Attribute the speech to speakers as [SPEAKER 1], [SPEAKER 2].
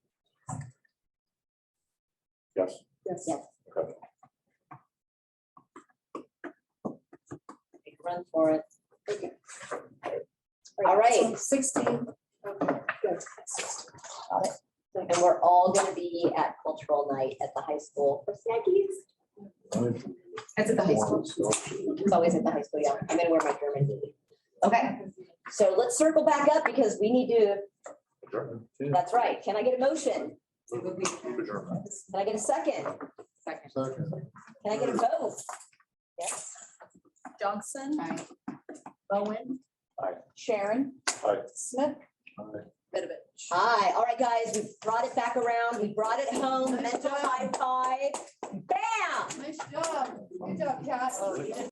[SPEAKER 1] Yes.
[SPEAKER 2] Yes. Make a Run for it. All right.
[SPEAKER 1] Sixteen. Okay, good.
[SPEAKER 2] Got it. And we're all gonna be at cultural night at the high school for snackies.
[SPEAKER 3] That's at the high school.
[SPEAKER 2] It's always at the high school, yeah. I'm gonna wear my German hoodie. Okay, so let's circle back up because we need to, that's right. Can I get a motion? Can I get a second?
[SPEAKER 3] Second.
[SPEAKER 2] Can I get a vote? Yes,
[SPEAKER 3] Johnson.
[SPEAKER 1] Aye.
[SPEAKER 3] Bowen. Sharon.
[SPEAKER 4] Aye.
[SPEAKER 3] Smith. Bedovich.
[SPEAKER 2] Hi, all right, guys, we brought it back around. We brought it home. Mental high five. Bam!
[SPEAKER 1] Nice job. Good job, Cass.